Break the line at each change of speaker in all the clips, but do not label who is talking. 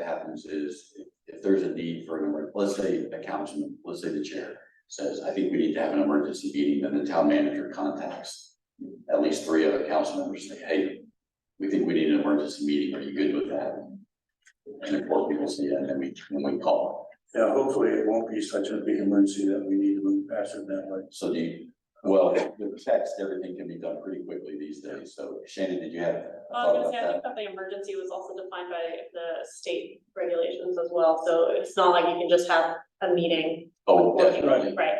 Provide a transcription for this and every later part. happens is if- if there's a need for an, emer- let's say a councilman, let's say the chair says, I think we need to have an emergency meeting, then the town manager contacts at least three other council members, say, hey, we think we need an emergency meeting. Are you good with that? And of course, people say, yeah, and then we, when we call.
Yeah, hopefully it won't be such a big emergency that we need to move past it that way.
So do you, well, with text, everything can be done pretty quickly these days. So Shannon, did you have? a
Well, I
thought
was
about
gonna say, I
that?
think that the emergency was also defined by the state regulations as well, so it's not like you can just have a meeting,
Oh, definitely.
right?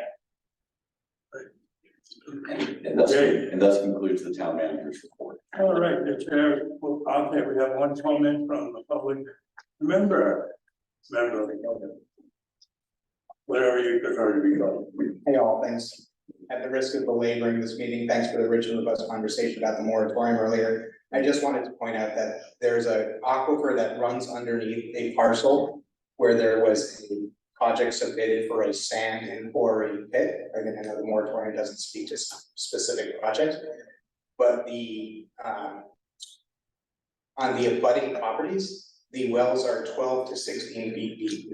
And and thus,
Okay.
and thus concludes the town manager's report.
All right, the chair, well, okay, we have one comment from the public member, member of the public. Whatever you prefer to be called.
Hey, all, thanks. At the risk of belaboring this meeting, thanks for the rich and robust conversation about the moratorium earlier. I just wanted to point out that there's a aquifer that runs underneath a parcel where there was a project submitted for a sand and quarry pit. Again, I know the moratorium doesn't speak to s- specific projects, but the, um, on the abutting properties, the wells are twelve to sixteen feet deep.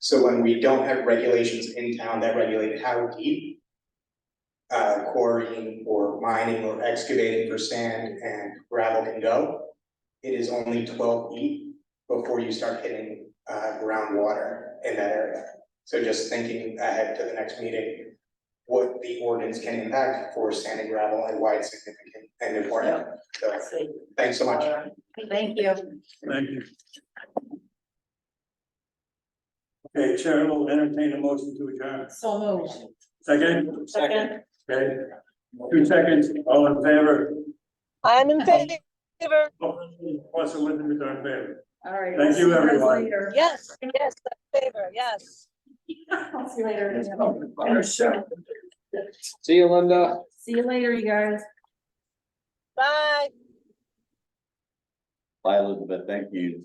So when we don't have regulations in town that regulate how deep. Uh, quarrying or mining or excavating for sand and gravel can go. It is only twelve feet before you start hitting uh groundwater in that area. So just thinking ahead to the next meeting. What the ordinance can impact for sand and gravel and why it's significant and important. So thanks so much.
Thank you.
Thank you. Okay, chair will entertain a motion to adjourn.
So moved.
Second,
Second,
okay, two seconds, all in favor?
I'm in
Okay.
favor.
What's the limit of our favor?
All right.
Thank you, everyone.
Yes, yes, I'm in favor, yes.
I'll see you later.
See you, Linda.
See you later, you guys.
Bye.
Bye, Elizabeth. Thank you.